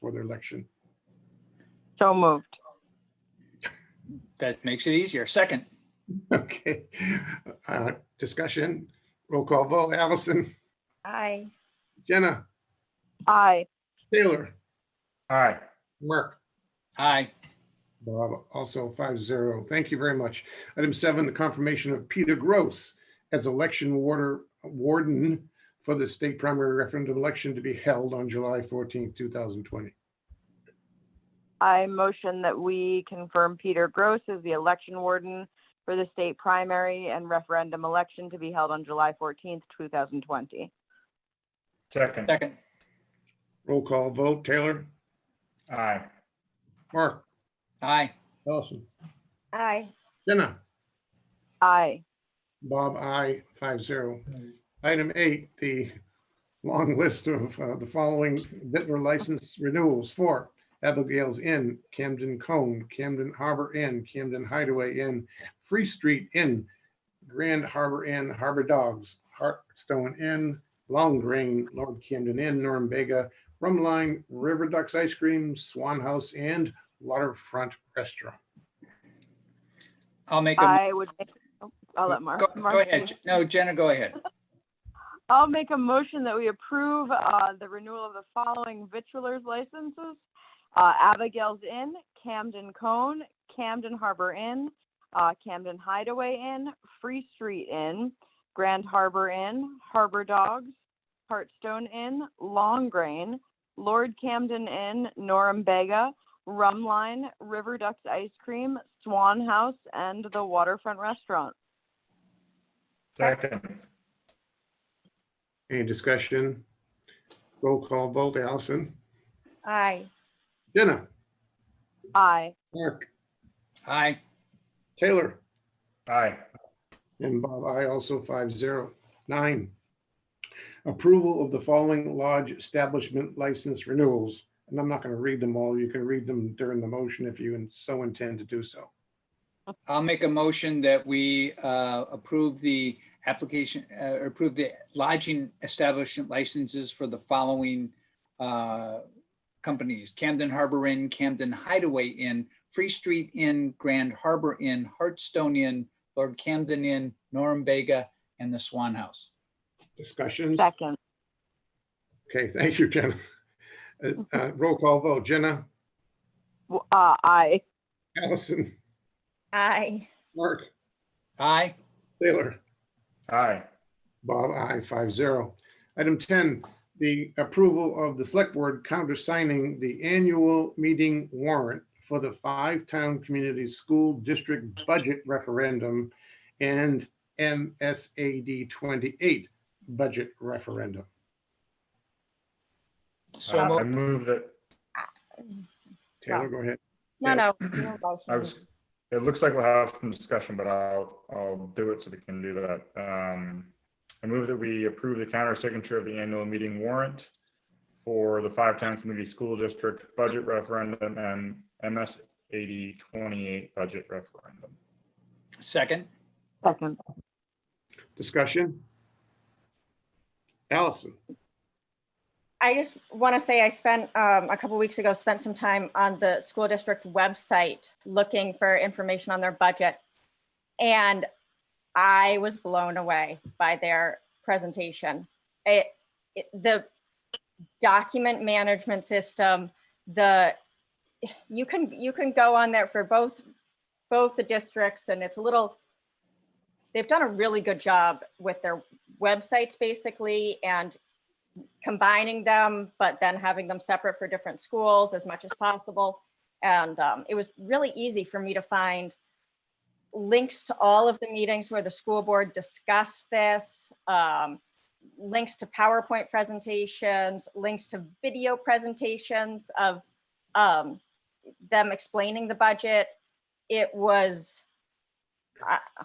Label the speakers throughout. Speaker 1: for their election.
Speaker 2: So moved.
Speaker 3: That makes it easier. Second,
Speaker 1: Okay, uh, discussion, roll call vote, Allison,
Speaker 4: Aye.
Speaker 1: Jenna,
Speaker 2: Aye.
Speaker 1: Taylor,
Speaker 5: Aye.
Speaker 1: Mark.
Speaker 3: aye.
Speaker 1: Bob, also five zero. Thank you very much. Item seven, the confirmation of Peter Gross as election warder, warden for the state primary referendum election to be held on July fourteenth, two thousand twenty.
Speaker 2: I motion that we confirm Peter Gross as the election warden for the state primary and referendum election to be held on July 14th, 2020.
Speaker 5: Second.
Speaker 3: Second,
Speaker 1: Roll call vote. Taylor,
Speaker 5: Aye.
Speaker 1: Mark,
Speaker 3: aye.
Speaker 1: Allison,
Speaker 4: Aye.
Speaker 1: Jenna,
Speaker 2: Aye.
Speaker 1: Bob, I five zero. Item eight, the long list of uh, the following Bitler license renewals for Abigail's Inn, Camden Cone, Camden Harbor Inn, Camden Hideaway Inn, Free Street Inn, Grand Harbor Inn, Harbor Dogs, Hartstone Inn, Long Green, Lord Camden Inn, Norumbega, Rumline, River Ducks Ice Cream, Swan House, and Waterfront Restaurant.
Speaker 3: I'll make a.
Speaker 2: I would, make- oh, I'll let Mark.
Speaker 3: Go- Go ahead. No, Jenna, go ahead.
Speaker 2: I'll make a motion that we approve uh, the renewal of the following vitrulars licenses. uh, Abigail's Inn, Camden Cone, Camden Harbor Inn, uh, Camden Hideaway Inn, Free Street Inn, Grand Harbor Inn, Harbor Dogs, Hartstone Inn, Long Grain, Lord Camden Inn, Norumbega, Rumline, River Ducks Ice Cream, Swan House, and the Waterfront Restaurant.
Speaker 5: Second.
Speaker 1: Any discussion? Roll call vote, Allison.
Speaker 4: Aye.
Speaker 1: Jenna,
Speaker 2: Aye.
Speaker 1: Mark,
Speaker 3: Aye.
Speaker 1: Taylor,
Speaker 5: Aye.
Speaker 1: and Bob, I also five zero nine. Approval of the following lodge establishment license renewals, and I'm not going to read them all. You can read them during the motion if you so intend to do so.
Speaker 3: I'll make a motion that we uh, approve the application, uh, approve the lodging establishment licenses for the following uh, companies, Camden Harbor Inn, Camden Hideaway Inn, Free Street Inn, Grand Harbor Inn, Hartstone Inn, Lord Camden Inn, Norm Vega, and the Swan House.
Speaker 1: Discussions?
Speaker 2: Second.
Speaker 1: Okay, thank you, Jenna. Uh, uh, Roll call vote, Jenna,
Speaker 2: W- Uh, aye.
Speaker 1: Allison,
Speaker 4: Aye.
Speaker 1: Mark,
Speaker 3: Aye.
Speaker 1: Taylor.
Speaker 5: Aye.
Speaker 1: Bob, I five zero. Item ten, the approval of the select board countersigning the annual meeting warrant for the five town community school district budget referendum and MSAD twenty-eight budget referendum.
Speaker 3: So
Speaker 5: Uh, I
Speaker 3: moved.
Speaker 5: move that,
Speaker 1: Taylor, go ahead.
Speaker 4: No,
Speaker 1: Yeah.
Speaker 4: no.
Speaker 5: I was, it looks like we'll have some discussion, but I'll, I'll do it so we can do that. Um, I move that we approve the counter signature of the annual meeting warrant for the Five Town Community School District Budget Referendum and MS eighty twenty-eight Budget Referendum.
Speaker 3: Second.
Speaker 2: Second.
Speaker 1: Discussion? Allison,
Speaker 4: I just want to say I spent, um, a couple weeks ago, spent some time on the school district website looking for information on their budget. And I was blown away by their presentation. It, it, the document management system, the, you can, you can go on there for both, both the districts and it's a little, they've done a really good job with their websites basically and combining them, but then having them separate for different schools as much as possible. And um, it was really easy for me to find links to all of the meetings where the school board discussed this, um, links to PowerPoint presentations, links to video presentations of um, them explaining the budget. It was, I, I-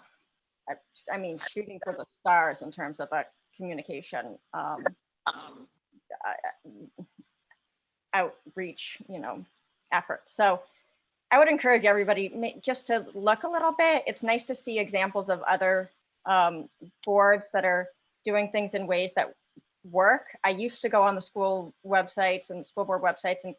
Speaker 4: I mean, shooting for the stars in terms of a communication um, uh, outreach, you know, effort. So I would encourage everybody ma- just to look a little bit. It's nice to see examples of other um, boards that are doing things in ways that work. I used to go on the school websites and the school board websites and